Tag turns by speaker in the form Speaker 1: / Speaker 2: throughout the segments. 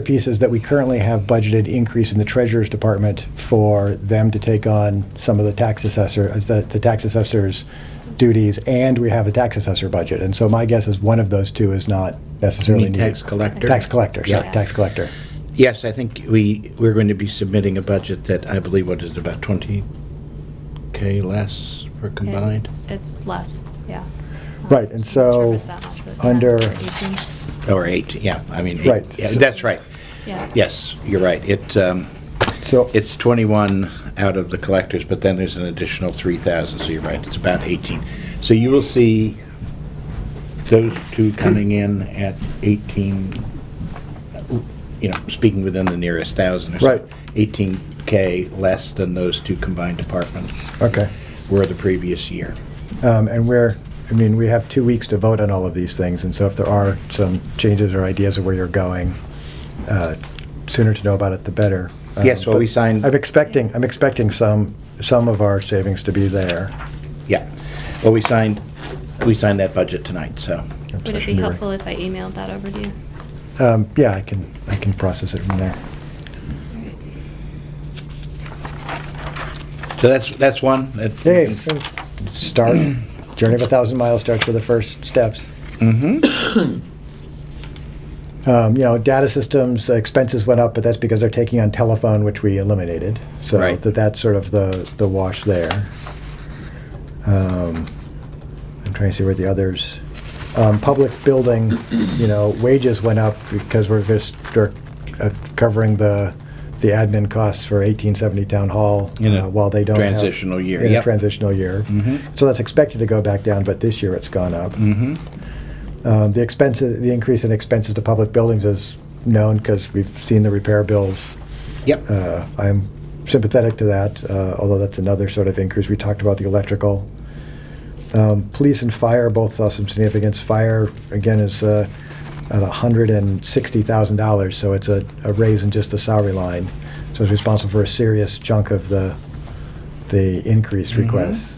Speaker 1: pieces that we currently have budgeted increase in the treasurer's department for them to take on some of the tax assessor, uh, the, the tax assessor's duties, and we have a tax assessor budget. And so my guess is one of those two is not necessarily
Speaker 2: You mean
Speaker 1: needed.
Speaker 2: tax collector?
Speaker 1: Tax collector, sorry,
Speaker 2: Yeah.
Speaker 1: tax collector.
Speaker 2: Yes, I think we, we're going to be submitting a budget that I believe, what is it, about 20K less for
Speaker 3: Yeah,
Speaker 2: combined?
Speaker 3: It's less, yeah.
Speaker 1: Right, and so, under-
Speaker 2: Or eight, yeah, I mean,
Speaker 1: Right,
Speaker 2: eight. yeah,
Speaker 1: so-
Speaker 2: that's right.
Speaker 3: Yeah,
Speaker 2: Yes, you're right. It, um,
Speaker 1: So,
Speaker 2: it's 21 out of the collectors, but then there's an additional 3,000, so you're right, it's about 18. So you will see those two coming in at 18, you know, speaking within the nearest thousand or so.
Speaker 1: Right.
Speaker 2: 18K less than those two combined departments
Speaker 1: okay.
Speaker 2: were the previous year.
Speaker 1: Um, And we're, I mean, we have two weeks to vote on all of these things, and so if there are some changes or ideas of where you're going, uh, sooner to know about it, the better. Um,
Speaker 2: Yes, well, we
Speaker 1: but
Speaker 2: signed-
Speaker 1: I'm expecting, I'm expecting some, some of our savings to be there.
Speaker 2: Yeah. Well, we signed, we signed that budget tonight, so.
Speaker 3: would it be helpful if I emailed that over to you?
Speaker 1: Um, Yeah, I can, I can process it from there.
Speaker 2: So that's, that's one. that-
Speaker 1: Hey, so start, journey of a thousand miles starts with the first steps.
Speaker 2: Mm-hmm,
Speaker 1: Um, You know, data systems uh, expenses went up, but that's because they're taking on telephone, which we eliminated. So
Speaker 2: Right.
Speaker 1: that that's sort of the, the wash there. Um, I'm trying to see where the others, um, public building, you know, wages went up because we're just we're, uh, covering the, the admin costs for 1870 Town Hall.
Speaker 2: In a
Speaker 1: uh, While they don't have-
Speaker 2: transitional year,
Speaker 1: In a
Speaker 2: yep.
Speaker 1: transitional year.
Speaker 2: Mhm.
Speaker 1: So that's expected to go back down, but this year it's gone up.
Speaker 2: Mhm.
Speaker 1: Um, The expenses, the increase in expenses to public buildings is known because we've seen the repair bills.
Speaker 2: Yep.
Speaker 1: Uh, I'm sympathetic to that, uh, although that's another sort of increase. We talked about the electrical. Um, Police and fire both saw some significance. Fire, again, is uh, at $160,000, so it's a a raise in just the salary line. So it's responsible for a serious chunk of the, the increased requests.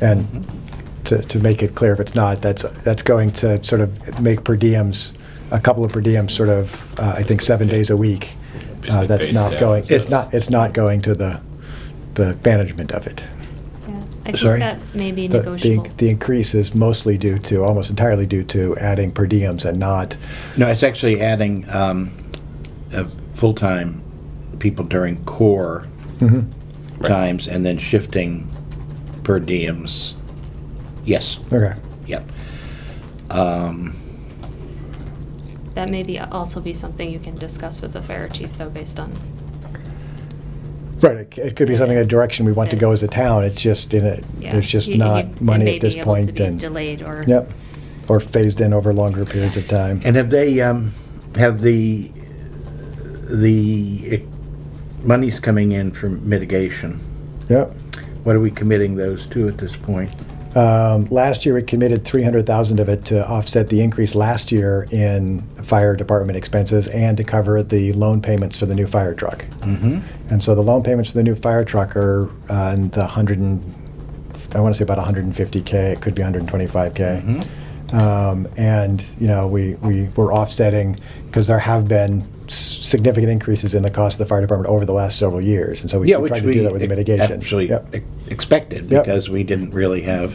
Speaker 1: And to, to make it clear, if it's not, that's, that's going to sort of make per diems, a couple of per diems, sort of, uh, I think, seven days a week. Uh,
Speaker 4: Basically
Speaker 1: That's
Speaker 4: paid
Speaker 1: not
Speaker 4: staff
Speaker 1: going,
Speaker 4: instead
Speaker 1: it's
Speaker 4: of-
Speaker 1: not, it's not going to the, the management of it.
Speaker 3: Yeah, I think
Speaker 2: Sorry?
Speaker 3: that may be
Speaker 1: The- the-
Speaker 3: negotiable.
Speaker 1: The increase is mostly due to, almost entirely due to adding per diems and not,
Speaker 2: No, it's actually adding um, uh, full-time people during core
Speaker 1: Mm-hmm.
Speaker 4: Right.
Speaker 2: times and then shifting per diems. Yes,
Speaker 1: okay,
Speaker 2: yep. Um,
Speaker 3: That may be, also be something you can discuss with the fire chief, though, based on,
Speaker 1: right, it c- it could be something, a direction we want to go as a town, it's just in a,
Speaker 3: yeah.
Speaker 1: there's just
Speaker 3: You- you-
Speaker 1: not
Speaker 3: it
Speaker 1: money
Speaker 3: may
Speaker 1: at this
Speaker 3: be able to
Speaker 1: point
Speaker 3: be
Speaker 1: and.
Speaker 3: Delayed or.
Speaker 1: Yep, or phased in over longer periods of time.
Speaker 2: And have they, um, have the, the e, monies coming in from mitigation,
Speaker 1: Yep.
Speaker 2: what are we committing those to at this point?
Speaker 1: Um, Last year, we committed 300,000 of it to offset the increase last year in fire department expenses and to cover the loan payments for the new fire truck.
Speaker 2: Mm-hmm.
Speaker 1: And so the loan payments for the new fire truck are uh, in the 100 and, I want to say about 150K, it could be 125K.
Speaker 2: Mm-hmm.
Speaker 1: Um, And, you know, we, we were offsetting, because there have been s- significant increases in the cost of the fire department over the last several years. And so we
Speaker 2: Yeah,
Speaker 1: keep
Speaker 2: which
Speaker 1: trying to do
Speaker 2: we
Speaker 1: that with the mitigation.
Speaker 2: actually
Speaker 1: Yep.
Speaker 2: ex- expected,
Speaker 1: Yep.
Speaker 2: because we didn't really have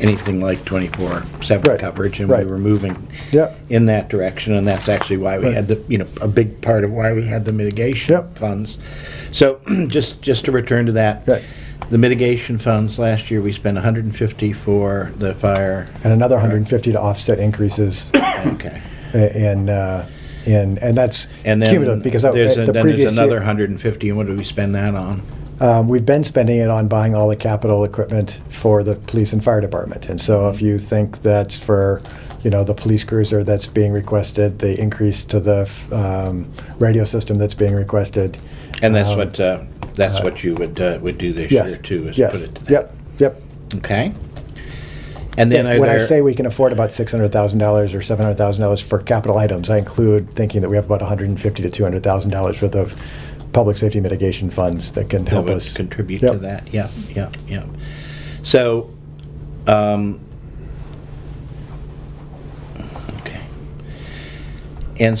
Speaker 2: anything like
Speaker 1: Right,
Speaker 2: 24/7 coverage, and we
Speaker 1: right.
Speaker 2: were moving
Speaker 1: Yep.
Speaker 2: in that direction, and that's actually why we
Speaker 1: Right.
Speaker 2: had the, you know, a big part of why we had the mitigation
Speaker 1: Yep.
Speaker 2: funds. So, just, just to return to that.
Speaker 1: Right.
Speaker 2: The mitigation funds, last year, we spent 150 for the fire.
Speaker 1: and another 150 to offset increases
Speaker 2: Okay.
Speaker 1: i- in, uh, in, and that's
Speaker 2: And then
Speaker 1: cumulative, because that- eh,
Speaker 2: there's a-
Speaker 1: the
Speaker 2: Then there's
Speaker 1: previous
Speaker 2: another
Speaker 1: year,
Speaker 2: 150, and what did we spend that on?
Speaker 1: uh, we've been spending it on buying all the capital equipment for the police and fire department. And so if you think that's for, you know, the police cruiser that's being requested, the increase to the f- um, radio system that's being requested.
Speaker 2: And that's
Speaker 1: um,
Speaker 2: what, uh, that's what you would, uh, would do this
Speaker 1: Yes,
Speaker 2: year, too, is
Speaker 1: yes,
Speaker 2: put it to that.
Speaker 1: Yep, yep.
Speaker 2: Okay. And then are
Speaker 1: When I
Speaker 2: there-
Speaker 1: say we can afford about six hundred thousand dollars or seven hundred thousand dollars for capital items, I include thinking that we have about one hundred and fifty to two hundred thousand dollars worth of public safety mitigation funds that can
Speaker 2: that
Speaker 1: help
Speaker 2: would
Speaker 1: us
Speaker 2: contribute
Speaker 1: Yep.
Speaker 2: to that. Yeah, yeah, yeah. So, um,